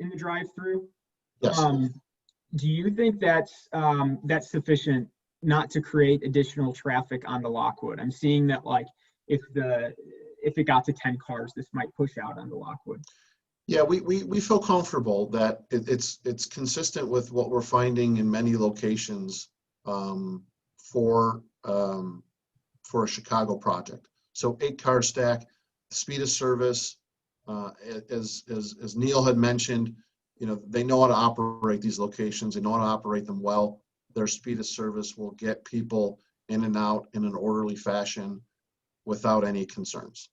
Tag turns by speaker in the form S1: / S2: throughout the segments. S1: the drive-through.
S2: Yes.
S1: Um, Do you think that's, um, that's sufficient not to create additional traffic onto Lockwood? I'm seeing that like, if the, if it got to ten cars, this might push out onto Lockwood.
S2: Yeah, we, we, we feel comfortable that it, it's, it's consistent with what we're finding in many locations um, for, um, for a Chicago project. So eight car stack, speed of service, uh, a- as, as, as Neil had mentioned, you know, they know how to operate these locations, they know how to operate them well. Their speed of service will get people in and out in an orderly fashion without any concerns.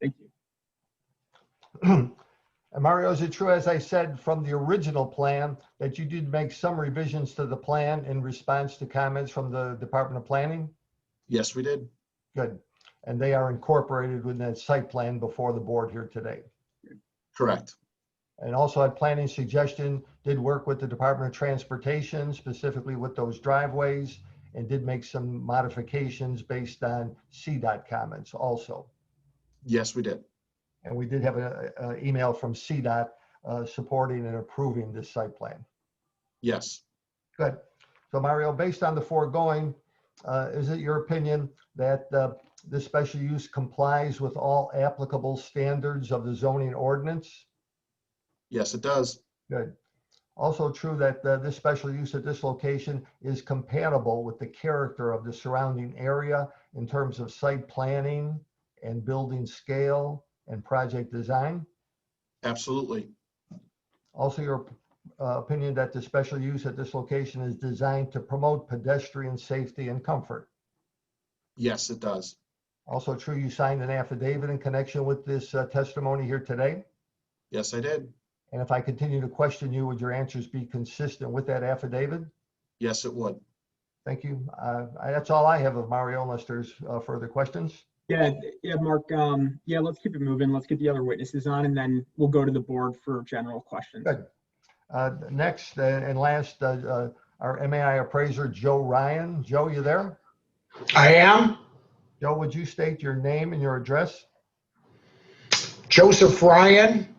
S1: Thank you.
S3: And Mario, is it true, as I said from the original plan, that you did make some revisions to the plan in response to comments from the Department of Planning?
S2: Yes, we did.
S3: Good. And they are incorporated within that site plan before the board here today.
S2: Correct.
S3: And also at planning suggestion, did work with the Department of Transportation, specifically with those driveways, and did make some modifications based on CDOT comments also.
S2: Yes, we did.
S3: And we did have an email from CDOT uh, supporting and approving this site plan.
S2: Yes.
S3: Good. So Mario, based on the foregoing, uh, is it your opinion that uh, this special use complies with all applicable standards of the zoning ordinance?
S2: Yes, it does.
S3: Good. Also true that uh, this special use at this location is compatible with the character of the surrounding area in terms of site planning and building scale and project design?
S2: Absolutely.
S3: Also, your uh, opinion that the special use at this location is designed to promote pedestrian safety and comfort?
S2: Yes, it does.
S3: Also true, you signed an affidavit in connection with this uh, testimony here today.
S2: Yes, I did.
S3: And if I continue to question you, would your answers be consistent with that affidavit?
S2: Yes, it would.
S3: Thank you. Uh, I- That's all I have of Mario, unless there's uh, further questions.
S1: Yeah, th- yeah, Mark, um, yeah, let's keep it moving. Let's get the other witnesses on and then we'll go to the board for general questions.
S3: Good. Uh, Next uh, and last, uh, uh, our MAI appraiser, Joe Ryan. Joe, you there?
S4: I am
S3: Joe, would you state your name and your address?
S4: Joseph Ryan,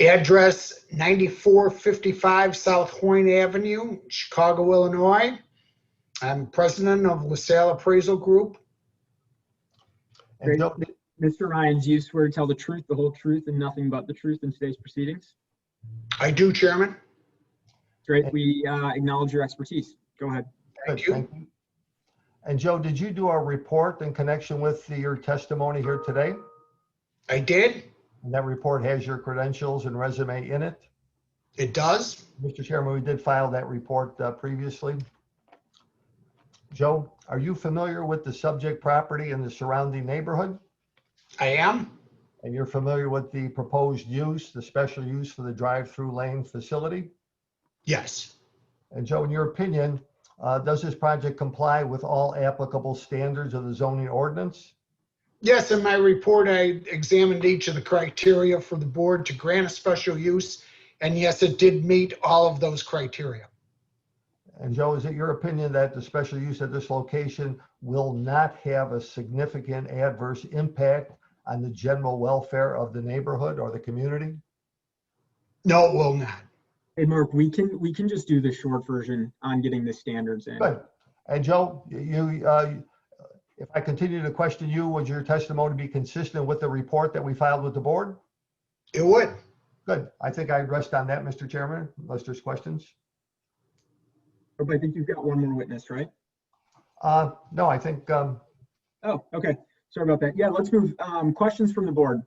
S4: address 9455 South Hoyne Avenue, Chicago, Illinois. I'm president of LaSalle Appraisal Group.
S3: And
S1: Great.
S3: Joe,
S1: Mr. Ryan, do you swear to tell the truth, the whole truth, and nothing but the truth in today's proceedings?
S4: I do, Chairman.
S1: Great, we uh, acknowledge your expertise. Go ahead.
S3: Good,
S4: Thank you.
S3: thank you. And Joe, did you do a report in connection with the- your testimony here today?
S4: I did.
S3: And that report has your credentials and resume in it?
S4: It does.
S3: Mr. Chairman, we did file that report uh, previously. Joe, are you familiar with the subject property and the surrounding neighborhood?
S4: I am.
S3: And you're familiar with the proposed use, the special use for the drive-through lane facility?
S4: Yes.
S3: And Joe, in your opinion, uh, does this project comply with all applicable standards of the zoning ordinance?
S4: Yes, in my report, I examined each of the criteria for the board to grant a special use. And yes, it did meet all of those criteria.
S3: And Joe, is it your opinion that the special use at this location will not have a significant adverse impact on the general welfare of the neighborhood or the community?
S4: No, it will not.
S1: Hey, Mark, we can, we can just do the short version on getting the standards in.
S3: Good. And Joe, you, uh, if I continue to question you, would your testimony be consistent with the report that we filed with the board?
S4: It would.
S3: Good. I think I rest on that, Mr. Chairman, unless there's questions.
S1: But I think you've got one more witness, right?
S3: Uh, No, I think, um,
S1: Oh, okay. Sorry about that. Yeah, let's move. Um, Questions from the board.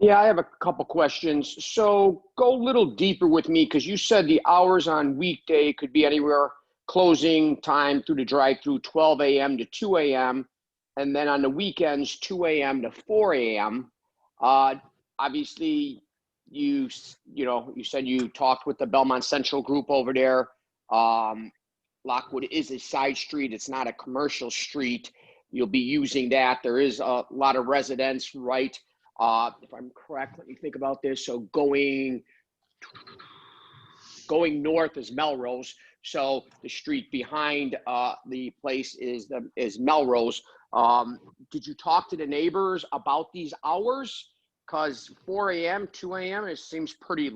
S5: Yeah, I have a couple questions. So go a little deeper with me because you said the hours on weekday could be anywhere closing time through the drive-through 12 a.m. to 2 a.m. and then on the weekends 2 a.m. to 4 a.m. Uh, obviously, you s- you know you said you talked with the Belmont Central group over there. Um, Lockwood is a side street; it's not a commercial street. You'll be using that. There is a lot of residents right uh, if I'm correct, let me think about this. So going, going north is Melrose. So the street behind uh, the place is the is Melrose. Um, did you talk to the neighbors about these hours? Cause 4 a.m., 2 a.m. It seems pretty